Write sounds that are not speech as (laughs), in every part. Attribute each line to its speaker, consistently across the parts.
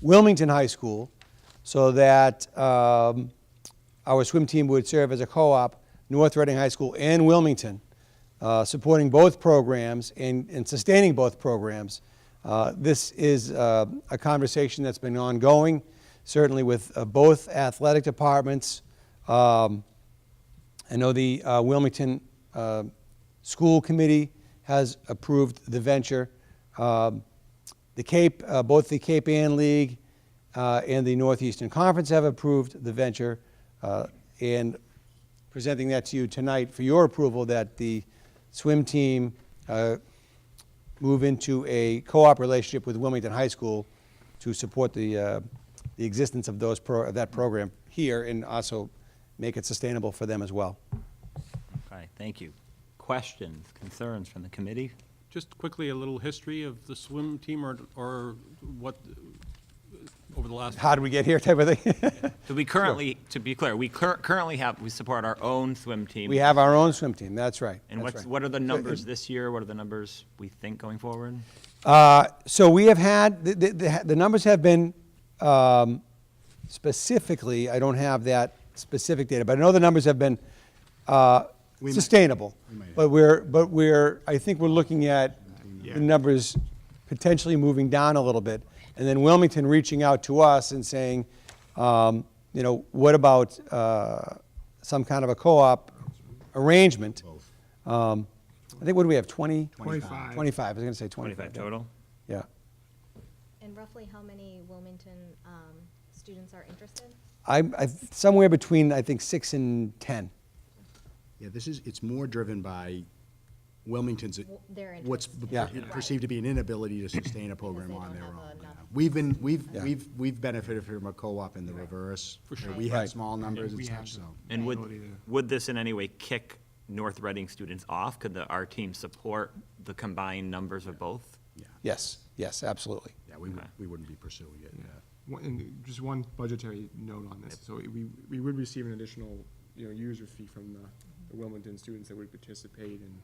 Speaker 1: Wilmington High School so that um, our swim team would serve as a co-op, North Reading High School and Wilmington, uh, supporting both programs and, and sustaining both programs. Uh, This is uh, a conversation that's been ongoing, certainly with uh, both athletic departments. Um, I know the uh, Wilmington uh, School Committee has approved the venture. Um, The Cape, uh, both the Cape Ann League uh, and the Northeastern Conference have approved the venture, uh, and presenting that to you tonight for your approval that the swim team uh, move into a co-op relationship with Wilmington High School to support the, uh, the existence of those, pro- of that program here and also make it sustainable for them as well.
Speaker 2: Okay, thank you. Questions, concerns from the committee?
Speaker 3: Just quickly, a little history of the swim team or, or what, uh, over the last,
Speaker 1: How did we get here type of thing? (laughs)
Speaker 2: So we currently, to be clear, we cur- currently have, we support our own swim team.
Speaker 1: We have our own swim team, that's right.
Speaker 2: And
Speaker 1: that's
Speaker 2: what's,
Speaker 1: right.
Speaker 2: what are the numbers this year? What are the numbers we think going forward?
Speaker 1: Uh, So we have had, the, the, the numbers have been um, specifically, I don't have that specific data, but I know the numbers have been uh, sustainable. But we're, but we're, I think we're looking at the numbers potentially moving down a little bit. And then Wilmington reaching out to us and saying, um, you know, what about uh, some kind of a co-op arrangement? Um, I think, what do we have, 20?
Speaker 4: 25.
Speaker 1: 25, I was going to say 25.
Speaker 2: Twenty-five
Speaker 1: yeah.
Speaker 2: total?
Speaker 1: Yeah.
Speaker 5: And roughly how many Wilmington um, students are interested?
Speaker 1: I, I, somewhere between, I think, six and 10.
Speaker 4: Yeah, this is, it's more driven by Wilmington's,
Speaker 5: W- their
Speaker 4: what's
Speaker 5: interests.
Speaker 1: Yeah.
Speaker 4: per- perceived to be an inability to sustain a program
Speaker 5: they
Speaker 4: on
Speaker 5: don't
Speaker 4: their
Speaker 5: have
Speaker 4: own.
Speaker 5: enough.
Speaker 4: We've been, we've,
Speaker 1: Yeah.
Speaker 4: we've, we've benefited from a co-op in the reverse.
Speaker 3: For
Speaker 4: where
Speaker 3: sure.
Speaker 4: We
Speaker 1: Right.
Speaker 4: had small numbers
Speaker 6: Yeah,
Speaker 4: and
Speaker 6: we
Speaker 4: stuff,
Speaker 6: have
Speaker 4: so.
Speaker 6: them.
Speaker 2: And
Speaker 6: Not
Speaker 2: would,
Speaker 6: either.
Speaker 2: would this in any way kick North Reading students off? Could the, our team support the combined numbers of both?
Speaker 4: Yeah,
Speaker 1: Yes, yes, absolutely.
Speaker 4: yeah, we, would-
Speaker 2: Okay.
Speaker 4: we wouldn't be pursuing it. yeah.
Speaker 6: One- And just one budgetary note on this, so we, we would receive an additional, you know, user fee from the the Wilmington students that would participate, and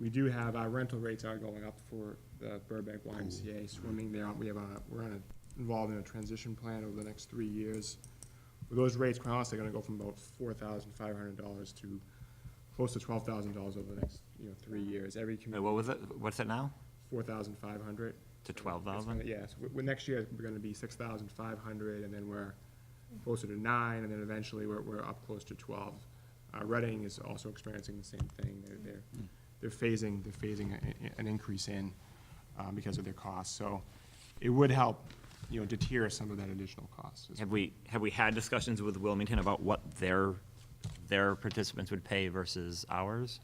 Speaker 6: we do have, our rental rates are going up for the Burbank YMCA swimming there, we have a, we're on a, involved in a transition plan over the next three years. Those rates, quite honestly, are gonna go from about four thousand five hundred dollars to close to twelve thousand dollars over the next, you know, three years, every
Speaker 2: Wait,
Speaker 6: community,
Speaker 2: What was it, what's it now?
Speaker 6: four thousand five hundred.
Speaker 2: To twelve thousand?
Speaker 6: Yes, we next year, we're gonna be six thousand five hundred, and then we're closer to nine, and then eventually, we're, we're up close to twelve. Uh, Reading is also experiencing the same thing, they're, they're,
Speaker 2: Mm.
Speaker 6: they're phasing, they're phasing a- a- an increase in, um, because of their costs, so it would help, you know, deter some of that additional cost.
Speaker 2: Have we, have we had discussions with Wilmington about what their, their participants would pay versus ours?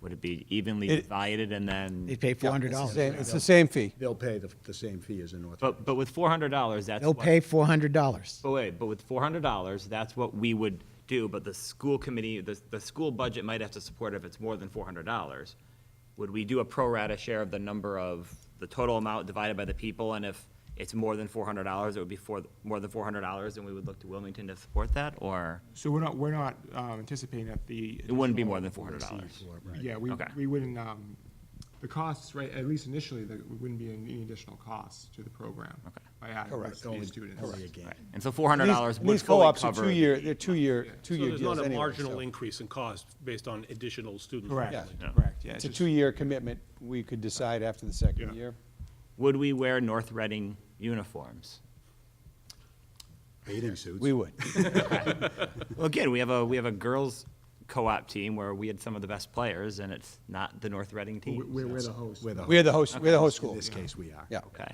Speaker 2: Would it be evenly
Speaker 1: It-
Speaker 2: divided and then?
Speaker 7: They pay four hundred
Speaker 1: It's the
Speaker 7: dollars.
Speaker 1: same- It's the same fee.
Speaker 4: They'll pay the, the same fee as in North.
Speaker 2: But, but with four hundred dollars, that's
Speaker 7: They'll
Speaker 2: what-
Speaker 7: pay four hundred dollars.
Speaker 2: But wait, but with four hundred dollars, that's what we would do, but the school committee, the, the school budget might have to support if it's more than four hundred dollars. Would we do a pro rata share of the number of, the total amount divided by the people, and if it's more than four hundred dollars, it would be for, more than four hundred dollars, and we would look to Wilmington to support that, or?
Speaker 6: So we're not, we're not um, anticipating that the.
Speaker 2: It wouldn't be
Speaker 6: additional-
Speaker 2: more than four hundred dollars.
Speaker 4: Right.
Speaker 6: Yeah, we,
Speaker 2: Okay.
Speaker 6: we wouldn't, um, the costs, right, at least initially, there wouldn't be any additional costs to the program.
Speaker 2: Okay.
Speaker 6: By adding
Speaker 1: Correct.
Speaker 6: those many students.
Speaker 4: Only a game.
Speaker 2: And so four hundred dollars
Speaker 1: These-
Speaker 2: would
Speaker 1: These
Speaker 2: fully
Speaker 1: co-ops are
Speaker 2: cover.
Speaker 1: two-year, they're two-year,
Speaker 3: so
Speaker 1: two-year
Speaker 3: there's
Speaker 1: deals
Speaker 3: not a
Speaker 1: anyway.
Speaker 3: marginal
Speaker 1: so-
Speaker 3: increase in cost based on additional students.
Speaker 1: Yeah.
Speaker 6: Correct,
Speaker 2: Yeah.
Speaker 6: correct, yeah.
Speaker 1: It's
Speaker 6: it's
Speaker 1: a
Speaker 6: just-
Speaker 1: two-year commitment. We could decide after the second
Speaker 6: Yeah.
Speaker 1: year.
Speaker 2: Would we wear North Reading uniforms?
Speaker 4: Bathing suits.
Speaker 1: We would.
Speaker 2: Well, again, we have a, we have a girls' co-op team where we had some of the best players, and it's not the North Reading
Speaker 6: We-
Speaker 2: team.
Speaker 6: We're, we're the host.
Speaker 4: We're the
Speaker 1: We're the host, we're the host
Speaker 4: In
Speaker 1: school.
Speaker 4: this case, we are.
Speaker 1: Yeah.
Speaker 2: Okay.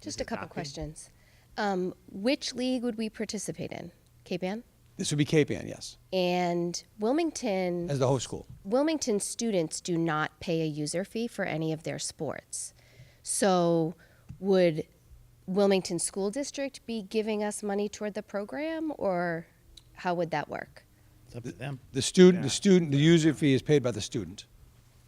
Speaker 8: Just a couple
Speaker 2: Copy.
Speaker 8: questions. Um, which league would we participate in? Cape Ann?
Speaker 1: This would be Cape Ann, yes,
Speaker 8: And Wilmington,
Speaker 1: as the host school.
Speaker 8: Wilmington students do not pay a user fee for any of their sports. So would Wilmington School District be giving us money toward the program or how would that work?
Speaker 7: It's up to them.
Speaker 1: The student, the student, the user fee is paid by the student.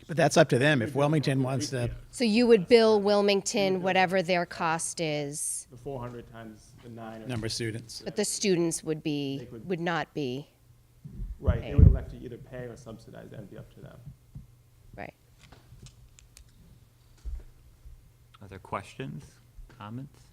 Speaker 7: But that's up to them. If Wilmington wants to,
Speaker 8: So you would bill Wilmington whatever their cost is,
Speaker 6: The four hundred times the nine. or-
Speaker 7: number of students.
Speaker 8: but the students would be, would not be,
Speaker 6: Right, they
Speaker 1: Oh.
Speaker 8: pay.
Speaker 6: would elect to either pay or subsidize, that'd be up to them.
Speaker 8: right?
Speaker 2: Other questions, comments?